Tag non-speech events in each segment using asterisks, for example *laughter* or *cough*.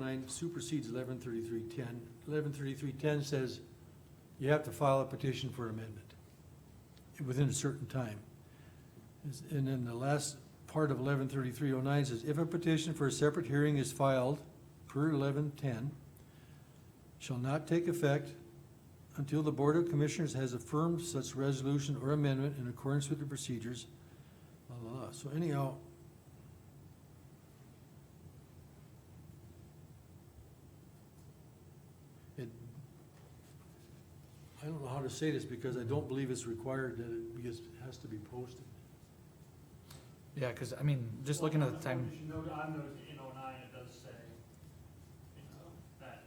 nine supersedes eleven thirty-three ten. Eleven thirty-three ten says you have to file a petition for amendment within a certain time. Is- And then the last part of eleven thirty-three oh nine says, if a petition for a separate hearing is filed per eleven ten, shall not take effect until the Board of Commissioners has affirmed such resolution or amendment in accordance with the procedures. La, la, la. So anyhow, it, I don't know how to say this because I don't believe it's required that it, because it has to be posted. Yeah, cause I mean, just looking at the time, You should note, I've noticed in oh nine, it does say, you know, that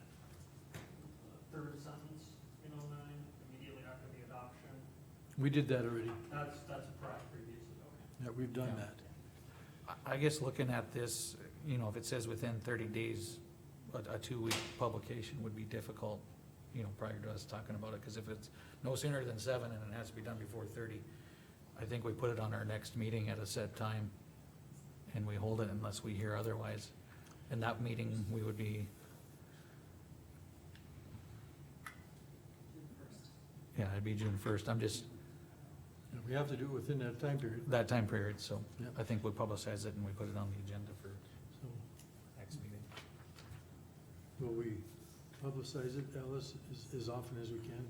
uh, third sentence in oh nine, immediately after the adoption, We did that already, that's, that's a prior previously, okay. yeah, we've done Yeah. that. I- I guess looking at this, you know, if it says within thirty days, a, a two-week publication would be difficult, you know, prior to us talking about it, cause if it's no sooner than seven and it has to be done before thirty, I think we put it on our next meeting at a set time, and we hold it unless we hear otherwise. In that meeting, we would be, yeah, it'd be June first, I'm just, And we have to do it within that time period, that time period, so Yeah. I think we publicize it and we put it on the agenda for so next meeting. will we publicize it, Alice, as, as often as we can?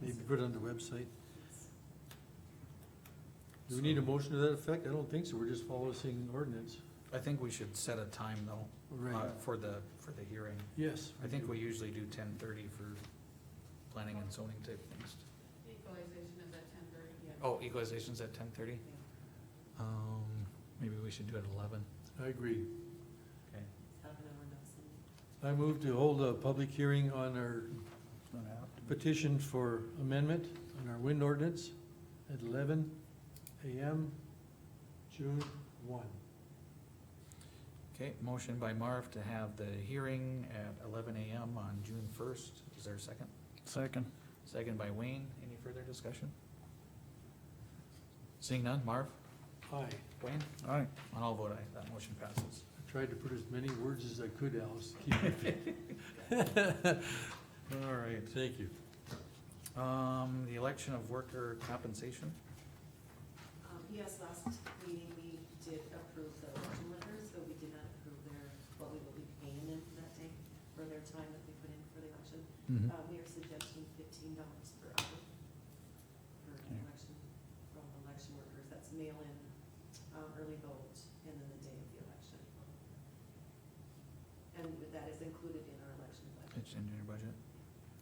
Maybe put it on the website? Do we need a motion to that effect? I don't think so, we're just following ordinance. I think we should set a time though, uh, for the, for the hearing. Yes. I think we usually do ten thirty for planning and zoning type things. Equalization is at ten thirty, yeah. Oh, equalization's at ten thirty? Um, maybe we should do it at eleven. I agree. Okay. Half an hour, no, Cindy. I move to hold a public hearing on our petition for amendment on our wind ordinance at eleven AM, June one. Okay, motion by Marv to have the hearing at eleven AM on June first. Is there a second? Second. Second by Wayne. Any further discussion? Seeing none, Marv, Aye. Wayne, All right. on all vote aye, that motion passes. I tried to put as many words as I could, Alice, *laughs* to keep it. All right. *laughs* Thank you. Um, the election of worker compensation. Um, yes, last meeting, we did approve the election workers, but we did not approve their, what we will be paying them for that day, for their time that they put in for the election. Mm-hmm. Hmm. Uh, we are suggesting fifteen dollars per hour for Okay. election, from election workers, that's mail-in, um, early vote, and then the day of the election. And that is included in our election budget. It's in your budget.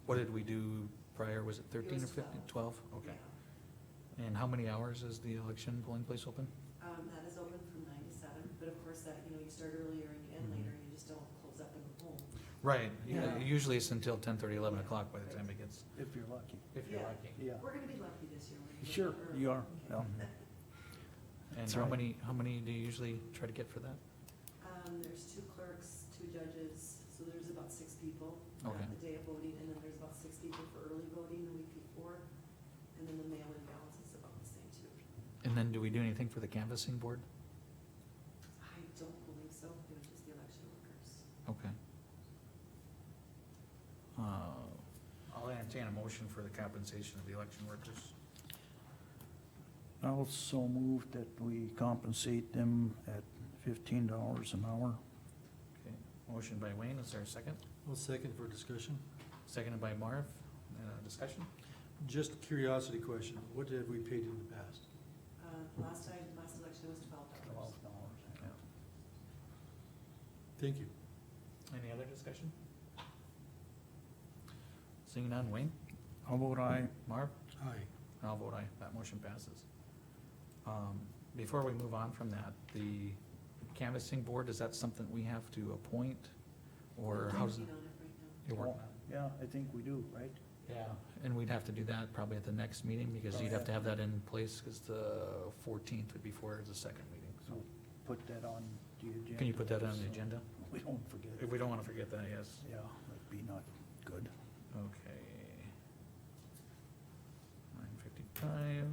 What did we do prior? Was it thirteen or was fifteen? Twelve? Okay. Yeah. And how many hours is the election polling place open? Um, that is open from nine to seven, but of course that, you know, you start earlier and you end Mhm. Mm-hmm. later, you just don't close up and go home. Right, Yeah. usually it's until ten thirty, eleven o'clock by the time it gets, If you're lucky. if you're Yeah. lucky. Yeah. We're gonna be lucky this year. we're gonna be Sure, early. you are. *laughs* Yeah. Mhm. And That's how right. many, how many do you usually try to get for that? Um, there's two clerks, two judges, so there's about six people Okay. on the day of voting, and then there's about six people for early voting the week before. And then the mail-in balance is about the same too. And then do we do anything for the canvassing board? I don't believe so, it was just the election workers. Okay. Uh, I'll entertain a motion for the compensation of the election workers. Also move that we compensate them at fifteen dollars an hour. Okay, motion by Wayne, is there a second? One second for discussion. Seconded by Marv, uh, discussion? Just curiosity question, what have we paid in the past? Uh, last time, last election was twelve dollars. dollars. Thank you. Any other discussion? Seeing none, Wayne, How about I, Marv, Aye. and I'll vote aye, that motion passes. Um, before we move on from that, the canvassing board, is that something we have to appoint? Or I'm how's it? working on it right now. you're working on yeah, I think we do, right? it? Yeah, and we'd have to do that probably at the next meeting, because you'd have to have that in place, cause the fourteenth would be for the second meeting, so. Put that on the agenda. Can you put that on the so agenda? We don't forget If it. we don't wanna forget that, yes. Yeah, that'd be not good. Okay. Nine fifty-five.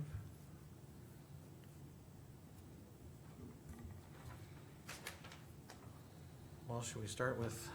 Well, should we start with